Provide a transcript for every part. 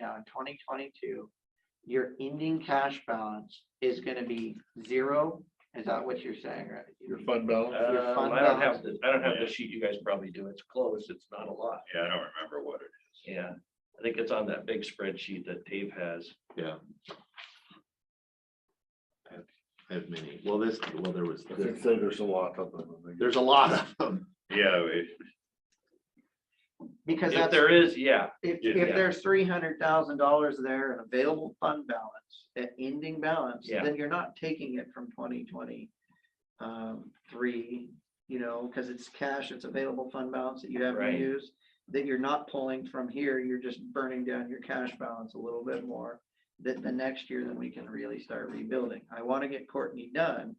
now in twenty twenty-two, your ending cash balance is gonna be zero? Is that what you're saying, right? Your fund balance, Your Uh, fund I don't have balance. the, I don't have the sheet. You guys probably do. It's close. It's not a lot. Yeah, I don't remember what it is. Yeah, I think it's on that big spreadsheet that Dave has. Yeah. I have- I have many. Well, this, well, there was, I think this- there's a lot of them. I think. there's a lot of them. Yeah, it- Because If that's, there is, yeah, if, yeah. if there's three hundred thousand dollars there in available fund balance, at ending balance, Yeah. then you're not taking it from twenty twenty. Um, three, you know, cause it's cash, it's available fund balance that you haven't Right. used. That you're not pulling from here, you're just burning down your cash balance a little bit more. That the next year, then we can really start rebuilding. I wanna get Courtney done.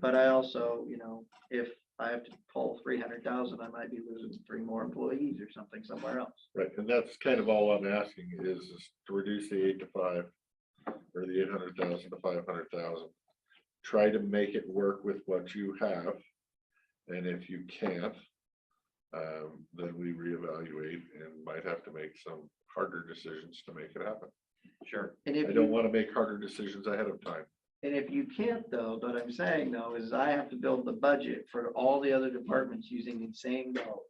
But I also, you know, if I have to pull three hundred thousand, I might be losing three more employees or something somewhere else. Right, and that's kind of all I'm asking is is to reduce the eight to five or the eight hundred thousand to five hundred thousand. Try to make it work with what you have. And if you can't, um, then we reevaluate and might have to make some harder decisions to make it happen. sure. And I if don't you, want to make harder decisions ahead of time. and if you can't though, but I'm saying though, is I have to build the budget for all the other departments using the same goal.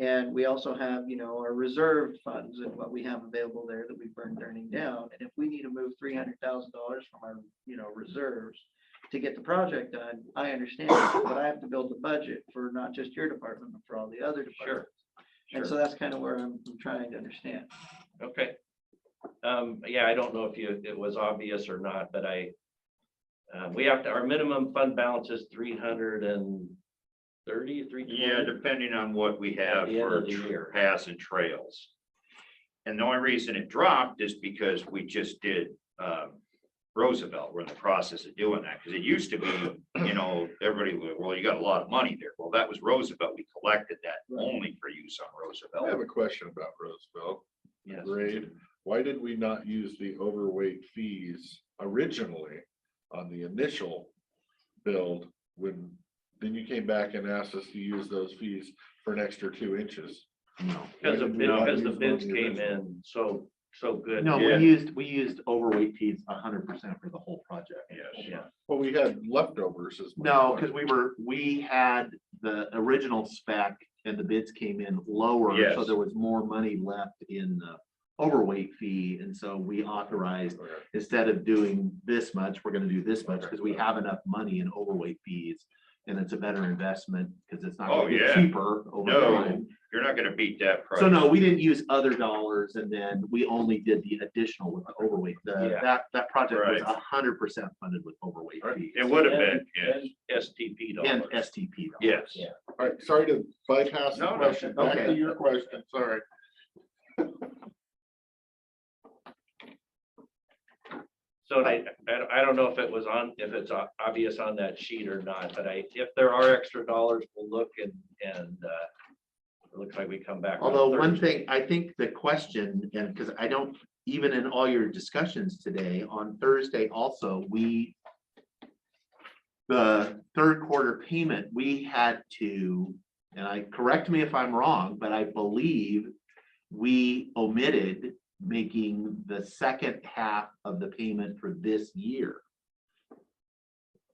And we also have, you know, our reserve funds and what we have available there that we've burned burning down. And if we need to move three hundred thousand dollars from our, you know, reserves to get the project done, I understand, that, but I have to build the budget for not just your department, but for all the other departments. And so Sure. that's kind of where I'm I'm trying to understand. Okay. Um, yeah, I don't know if you, it was obvious or not, but I, uh, we have to, our minimum fund balance is three hundred and thirty, three. yeah, depending on what we have At the end for of the year. tr- paths and trails. And the only reason it dropped is because we just did um, Roosevelt. We're in the process of doing that because it used to be, you know, everybody, would, well, you got a lot of money there. Well, that was Roosevelt. We collected that only for use on I have Roosevelt. a question about Roosevelt. Yes. Grade, why did we not use the overweight fees originally on the initial build? When, then you came back and asked us to use those fees for an extra two inches. No. Because of, bid- No, because the it's bids only came original. in so, so good. No, we Yeah. used, we used overweight fees hundred percent for the whole project. Yes. Yeah, Well, we had leftovers as. my No, point. because we were, we had the original spec and the bids came in lower, so Yes. there was more money left in the overweight fee, and so we authorized, Okay. instead of doing this much, we're gonna do this much, Okay. because we have enough money in overweight fees. And it's a better investment, because it's not Oh, gonna get yeah. cheaper over No. time. You're not going to beat that price. So no, we didn't use other dollars and then we only did the additional with the overweight. The, Yeah. that, that project was Right. hundred percent funded with overweight Right. fees It would have And- been, yes, and STP and dollars. STP. dollars. yes. Yeah. All right, sorry to bypass the No, no, question. Back to okay. your question, sorry. So I, I, I don't know if it was on, if it's o- obvious on that sheet or not, but I, if there are extra dollars, we'll look and, and, uh, it looks like we come back. on Although one Thursday. thing, I think the question, and because I don't, even in all your discussions today, on Thursday also, we. The third quarter payment, we had to, and I, correct me if I'm wrong, but I believe. We omitted making the second half of the payment for this year.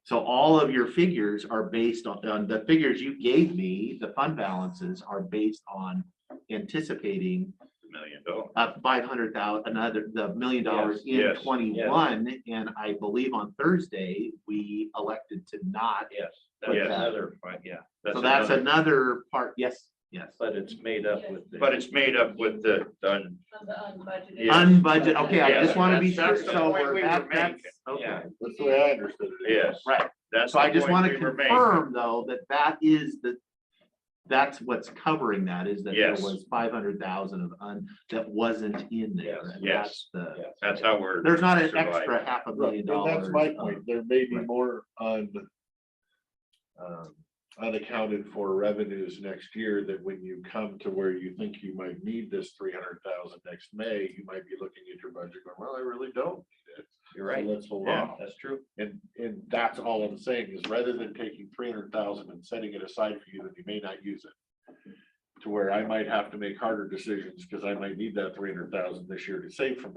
So all of your figures are based on, on the figures you gave me, the fund balances are based on anticipating Million dollars. uh five hundred thousand, another, the million dollars in Yes, yes, twenty-one. And I believe on Thursday, we elected to not. Yes, that's Yes. another, point, yeah, So that's another- another part, yes, yes. but it's made up with. the- But it's made up with the, done, Of the unbudgeted. Yeah. Unbudgeted, okay, I Yeah, just want to be sure, that's- that's the so point we're we that, were that's, making, yeah. okay. That's the way I understood it. yes. Right. That's. So I the just point want we to were making. confirm, though, that that is the, that's what's covering that, is that there Yes. was five hundred thousand of un, that wasn't in there. Yes, and that's The, Yes. That's how we're. there's not an surviving. extra half a Right, million and dollars. That's my of- point, there may be right. more un. um, Unaccounted for revenues next year that when you come to where you think you might need this three hundred thousand next May, you might be looking at your budget going, well, I really don't. You're So right, Let's hold Yeah. on, that's true. and, and that's all I'm saying is rather than taking three hundred thousand and setting it aside for you that you may not use it. to where I might have to make harder decisions, because I might need that three hundred thousand this year to save from